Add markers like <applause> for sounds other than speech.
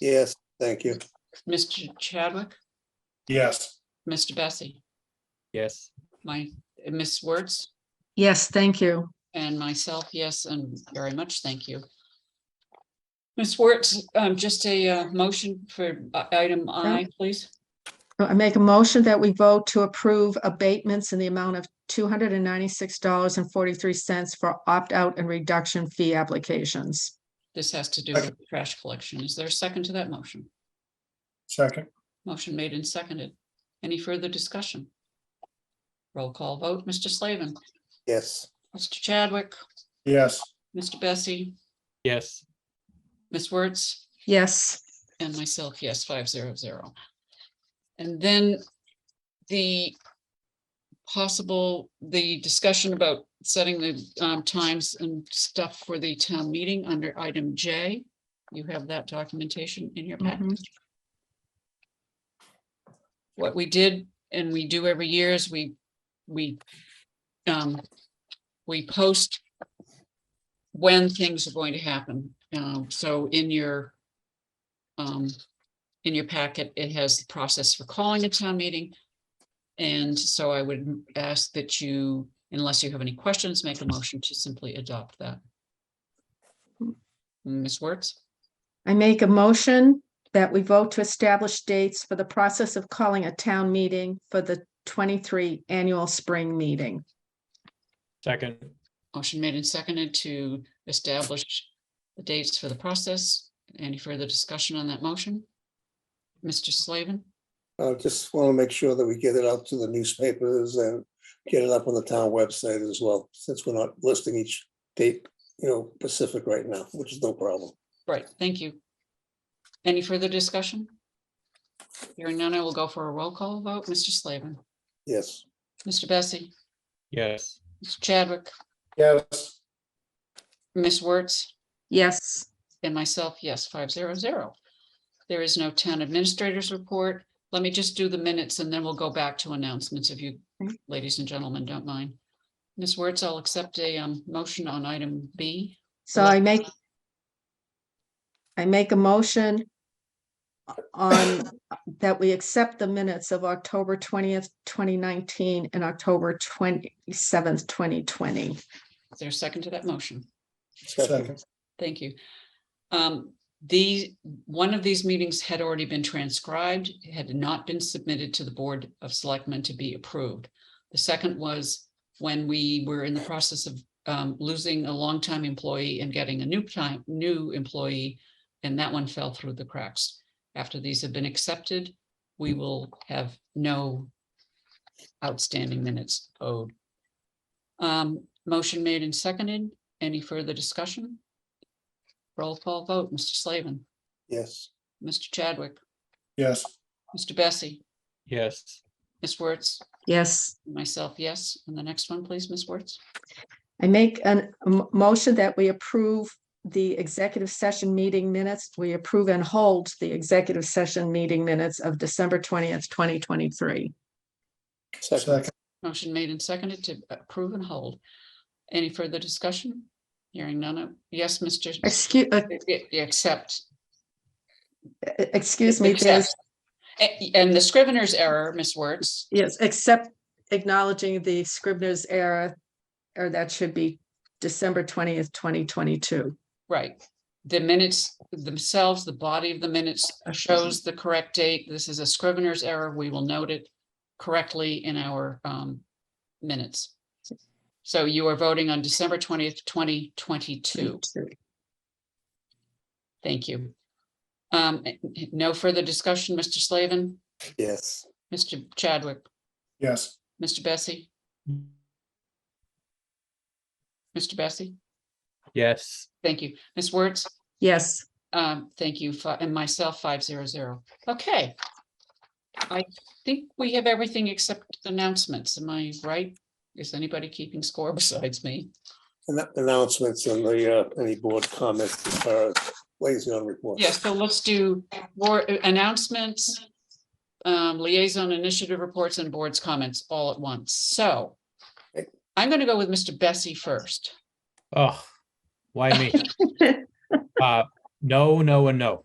Yes, thank you. Mr. Chadwick, Yes. Mr. Bessie, Yes. my, Ms. Wertz, Yes, thank you. and myself, yes, and very much thank you. Ms. Wertz, um, just a, uh, motion for uh, item I, please. I make a motion that we vote to approve abatements in the amount of two hundred and ninety-six dollars and forty-three cents for opt-out and reduction fee applications. This has to do with trash collection. Is there a second to that motion? Second. Motion made and seconded. Any further discussion? Roll call vote, Mr. Slavin, Yes, Mr. Chadwick, Yes. Mr. Bessie, Yes. Ms. Wertz. Yes, And myself, yes, five zero zero. And then the possible, the discussion about setting the um, times and stuff for the town meeting under item J. You have that documentation in your packet. Mhm. What we did and we do every year is we, we, um, we post when things are going to happen. Um, So in your um, in your packet, it has the process for calling a town meeting. And so I would ask that you, unless you have any questions, make a motion to simply adopt that. Ms. Wertz, I make a motion that we vote to establish dates for the process of calling a town meeting for the twenty-three annual spring meeting. Second. motion made and seconded to establish the dates for the process. Any further discussion on that motion? Mr. Slavin, I just want to make sure that we get it out to the newspapers and get it up on the town website as well, since we're not listing each date, you know, Pacific right now, which is no problem. right, thank you. Any further discussion? Hearing none, I will go for a roll call vote. Mr. Slavin, Yes, Mr. Bessie? Yes. Mr. Chadwick, Yes. Ms. Wertz, Yes, and myself, yes, five zero zero. There is no town administrators report. Let me just do the minutes and then we'll go back to announcements if you, Okay. ladies and gentlemen, don't mind. Ms. Wertz, I'll accept a um, motion on item B. so I make I make a motion on, that we accept the minutes of October twentieth, twenty nineteen and October twenty-seventh, twenty twenty. Is there a second to that motion? Second. Thank you. Um, the, one of these meetings had already been transcribed, it had not been submitted to the Board of Selectmen to be approved. The second was when we were in the process of um, losing a longtime employee and getting a new time, new employee. And that one fell through the cracks. After these have been accepted, we will have no outstanding minutes owed. Um, motion made and seconded. Any further discussion? Roll call vote, Mr. Slavin, yes, Mr. Chadwick, Yes. Mr. Bessie, Yes. Ms. Wertz, Yes, myself, yes. And the next one, please, Ms. Wertz. I make an- a m- motion that we approve the executive session meeting minutes. We approve and hold the executive session meeting minutes of December twentieth, twenty twenty-three. second, Second. Motion made and seconded to approve and hold. Any further discussion? Hearing none. uh, Yes, Mr. Excuse, uh, Except. excuse me, there's, And the Scrivener's error, Ms. Wertz, yes, except acknowledging the Scribner's error, or that should be December twentieth, twenty twenty-two. right. The minutes themselves, the body of the minutes shows the correct date. This is a Scrivener's error. We will note it correctly in our um minutes. So you are voting on December twentieth, twenty twenty-two. Thank you. Um, eh, eh, no further discussion, Mr. Slavin, yes, Mr. Chadwick, Yes. Mr. Bessie, Mr. Bessie. Yes. Thank you. Ms. Wertz, Yes, um, thank you, fi- and myself, five zero zero. Okay. I think we have everything except announcements. Am I right? Is anybody keeping score <laughs> besides me? and that announcements and the, uh, any board comments as far as liaison reports. Yes, so let's do more announcements, um, liaison initiative reports and boards comments all at once. So I'm going to go with Mr. Bessie first. Oh, why me? Uh, no, no, and no.